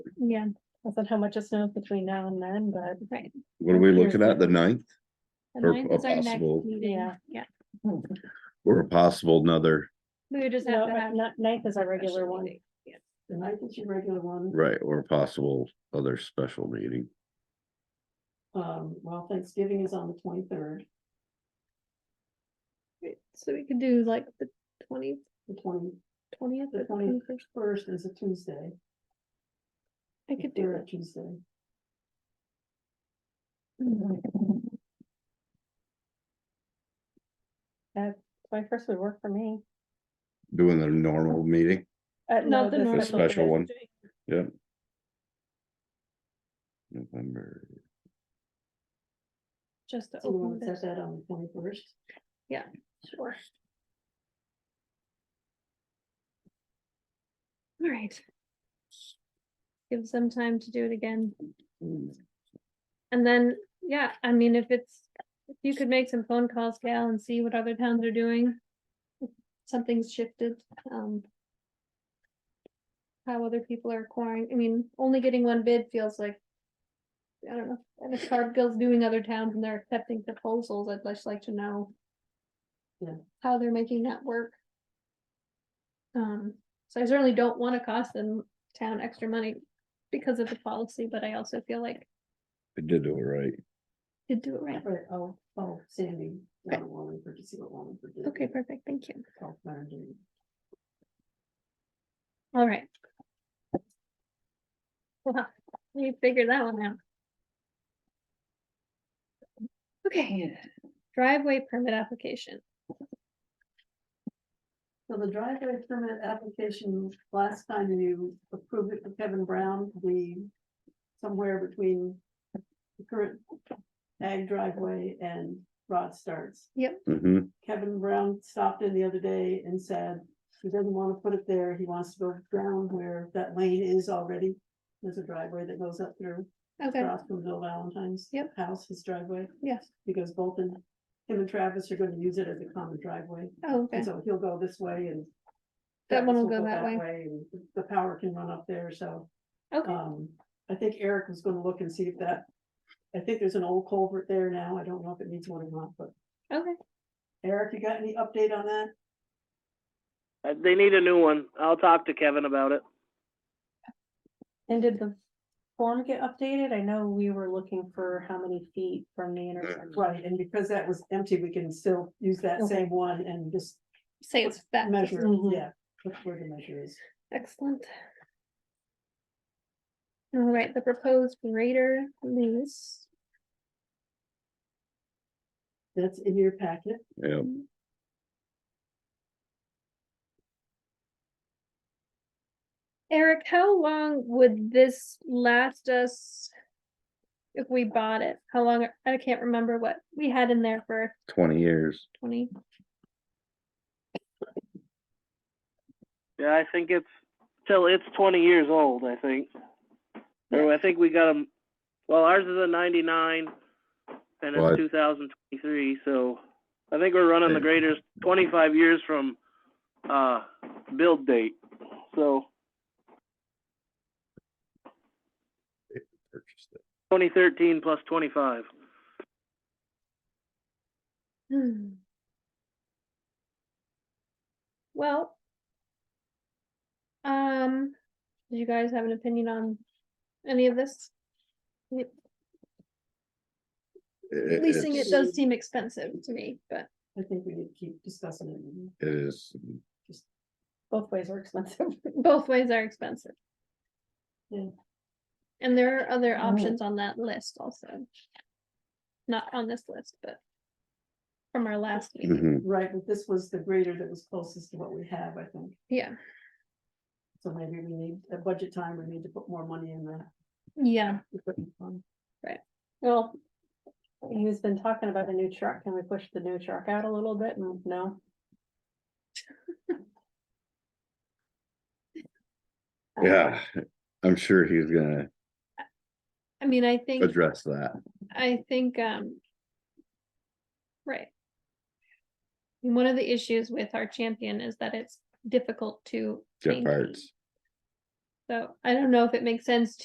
Yeah, I said how much it snows between now and then, but Right. What are we Mm-hmm. looking at? The ninth The Or ninth is our next possible- meeting. Yeah. Yeah, or a possible another, we would just no, have to have. uh, ni- ninth is our a special regular one. meeting. Yeah. The night is your regular one, right, or a possible other special meeting? um, well, Thanksgiving is on the twenty-third, Right, So we could do like the twenty, the twenty-first twentieth The or 20th. twenty-first. is a Tuesday. I could do Third it. Tuesday, Mm-hmm. That twenty-first Uh, would work for me. Doing the normal meeting? Uh, Not no, the the normal. The special one. Thursday. Yep. November, Just to so we want open to this. set that on the twenty-first, Sure. All right. Give them time to do it again. Mm. And then, yeah, I mean, if it's, if you could make some phone calls, Gal, and see what other towns are doing. if Something's shifted, um. How other people are acquiring, I mean, only getting one bid feels like. I don't know, and if Cargill's doing other towns and they're accepting proposals, I'd just like to know. Yeah. How they're making that work. Um, so I certainly don't wanna cost them town extra money because of the policy, but I also feel like I did do it right. did do it right. right, oh, oh, Sandy, Okay. down at Wallingford, to see what Wallingford did. Okay, perfect, thank you. Oh, Mary Jane. All right. Well, we figured that one out. Okay, driveway permit application. So the driveway permit application, last time you approved it for Kevin Brown, the somewhere between the current ag driveway and Rod starts. Mm-hmm. Kevin Brown stopped in the other day and said he doesn't want to put it there. He wants to go down where that lane is already. There's a driveway that goes up through Okay, across from Bill Valentine's. Yep. House, his driveway, yes, because both and him and Travis are gonna use it as a common driveway. oh, okay, And so he'll go this way and That one will Travis go that way. and The power can run up there, so. okay, Um, I think Eric was gonna look and see if that, I think there's an old culvert there now. I don't know if it needs one or not, but okay, Eric, you got any update on that? Uh, They need a new one. I'll talk to Kevin about it. And did the form get updated? I know we were looking for how many feet from the intersection. Right, and because that was empty, we can still use that Okay. same one and just say it's that, Mm-hmm. measure, it. Mhm. yeah, that's where the measure is. excellent. All right, the proposed grader lease, That's in your packet. Yeah, Eric, how long would this last us? If we bought it, how long, I can't remember what we had in there for twenty years. twenty, Yeah, I think it's till it's 20 years old. I think. Or I think we got them. Well, ours is a 99, and Right. it's 2023. So I think we're running the Yeah. graders 25 years from uh, build date. So Purchased it. 2013 plus 25. Hmm. Well. Um, did you guys have an opinion on any of this? It- Leasing it it's- does seem expensive to me, but I think we need to keep discussing it. and It is, Both ways are expensive. both ways are expensive. Yeah. And there are other Mm. options on that list also. Not on this list, but. From our last meeting, mhm, Right, but this was the grader that was closest to what we have, I think. yeah, So maybe we need, at budget time, we need to put more money in the yeah, equipment fund. Well, he's been talking about a new truck. Can we push the new truck out a little bit? And No. yeah, I'm sure he's gonna I mean, I think. address that. I think, um. Right. And One of the issues with our champion is that it's difficult to. Get maintain. parts. So I don't know if it makes sense